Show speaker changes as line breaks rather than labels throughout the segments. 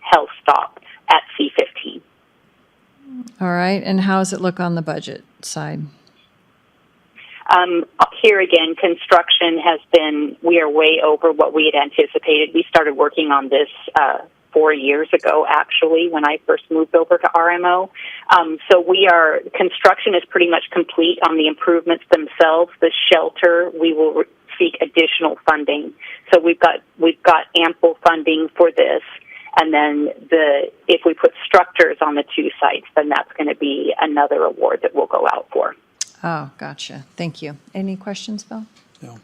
health stop at C15.
All right. And how does it look on the budget side?
Um, here again, construction has been, we are way over what we had anticipated. We started working on this uh, four years ago, actually, when I first moved over to RMO. Um, so we are, construction is pretty much complete on the improvements themselves. The shelter, we will re- seek additional funding. So we've got, we've got ample funding for this. And then the, if we put structures on the two sites, then that's going to be another award that we'll go out for.
Oh, gotcha. Thank you. Any questions, Bill?
No.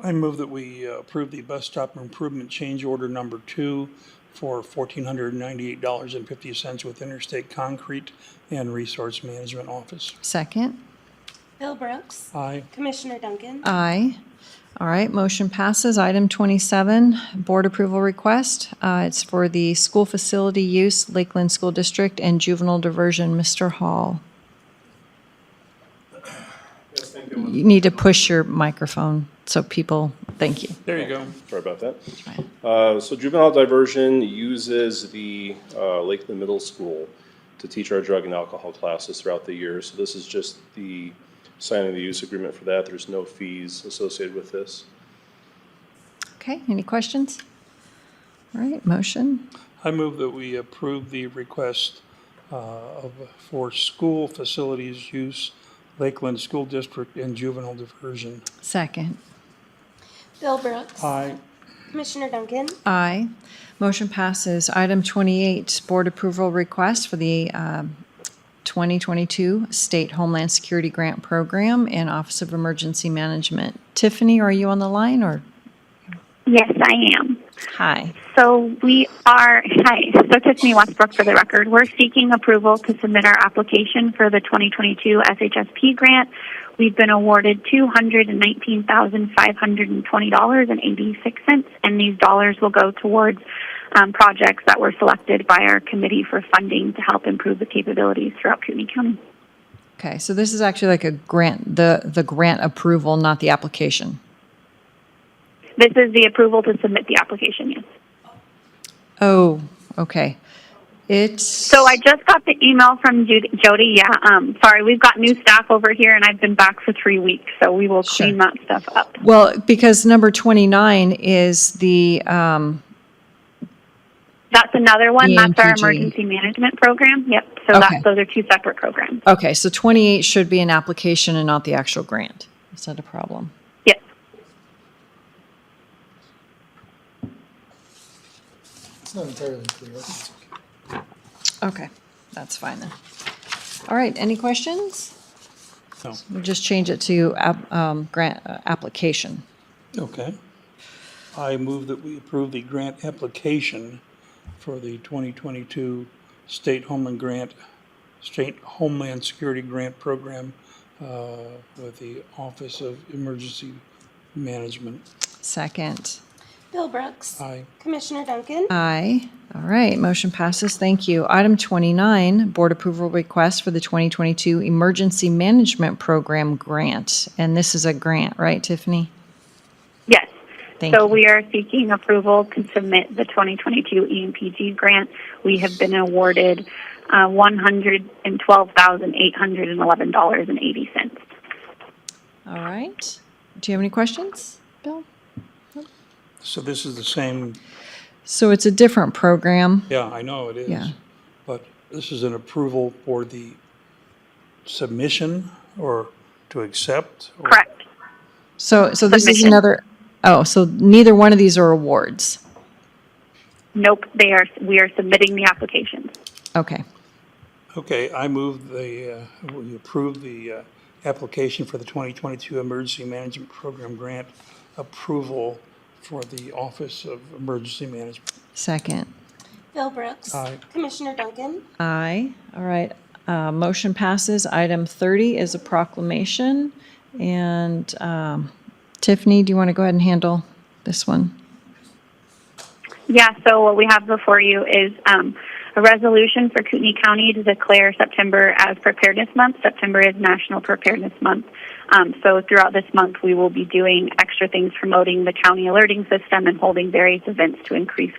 I move that we uh, approve the bus stop improvement change order number two for fourteen hundred and ninety-eight dollars and fifty cents with Interstate Concrete and Resource Management Office.
Second?
Bill Brooks.
Aye.
Commissioner Duncan.
Uh. Aye. All right, motion passes. Item 27, board approval request. Uh, It's for the school facility use, Lakeland School District and juvenile diversion, Mr. Hall. You need to push your microphone so people, thank you.
There you go.
Sorry about that. Uh, So juvenile diversion uses the uh, Lakeland Middle School to teach our drug and alcohol classes throughout the year. So this is just the signing of the use agreement for that. There's no fees associated with this.
Okay, any questions? All right, motion.
I move that we approve the request uh, of, for school facilities use, Lakeland School District and juvenile diversion.
Second.
Bill Brooks.
Aye.
Commissioner Duncan.
Aye. Motion passes. Item 28, board approval request for the um, 2022 State Homeland Security Grant Program and Office of Emergency Management. Tiffany, are you on the line or?
Yes, I am.
Hi.
So we are, hi, so Tiffany Westbrook for the record. We're seeking approval to submit our application for the 2022 SHSP grant. We've been awarded $219,520.86, and these dollars will go towards um, projects that were selected by our committee for funding to help improve the capabilities throughout CUNY County.
Okay, so this is actually like a grant, the, the grant approval, not the application.
This is the approval to submit the application, yes.
Oh, okay. It's.
So I just got the email from Judy, Jody. Yeah, um, sorry, we've got new staff over here, and I've been back for three weeks, so we will
Sure.
clean that stuff up.
Well, because number 29 is the, um,
That's another one. That's our
EMPG.
emergency management program. Yep. So
Okay.
that, those are two separate programs.
okay, so 28 should be an application and not the actual grant. Is that a problem?
Yep.
It's not entirely clear.
Okay, that's fine then. All right, any questions?
No.
We'll just change it to app- um, grant uh, application.
Okay. I move that we approve the grant application for the 2022 State Homeland Grant, State Homeland Security Grant Program uh, with the Office of Emergency Management.
Second.
Bill Brooks.
Aye.
Commissioner Duncan.
Uh. Aye. All right, motion passes. Thank you. Item 29, board approval request for the 2022 Emergency Management Program Grant. And this is a grant, right, Tiffany?
Yes.
Thank
so
you.
we are seeking approval to submit the E 2022 EMPG grant. We have been awarded uh, $112,811.80.
All right. Do you have any questions, Bill?
So this is the same,
So it's a different program.
yeah, I know it is.
Yeah.
But this is an approval for the submission or to accept? or-
Correct.
So, so this is
Submission.
another, oh, so neither one of these are awards.
Nope. They are. We are submitting the applications.
Okay.
Okay, I move the, uh, we approve the uh, application for the 2022 Emergency Management Program Grant approval for the Office of Emergency Management.
Second.
Bill Brooks.
Aye.
Commissioner Duncan.
Aye. All right. Uh, Motion passes. Item 30 is a proclamation. And um, Tiffany, do you want to go ahead and handle this one?
Yeah, so what we have before you is um, a resolution for Kootenai County to declare September as Preparedness Month. September is National Preparedness Month. Um, so throughout this month, we will be doing extra things promoting the county alerting system and holding various events to increase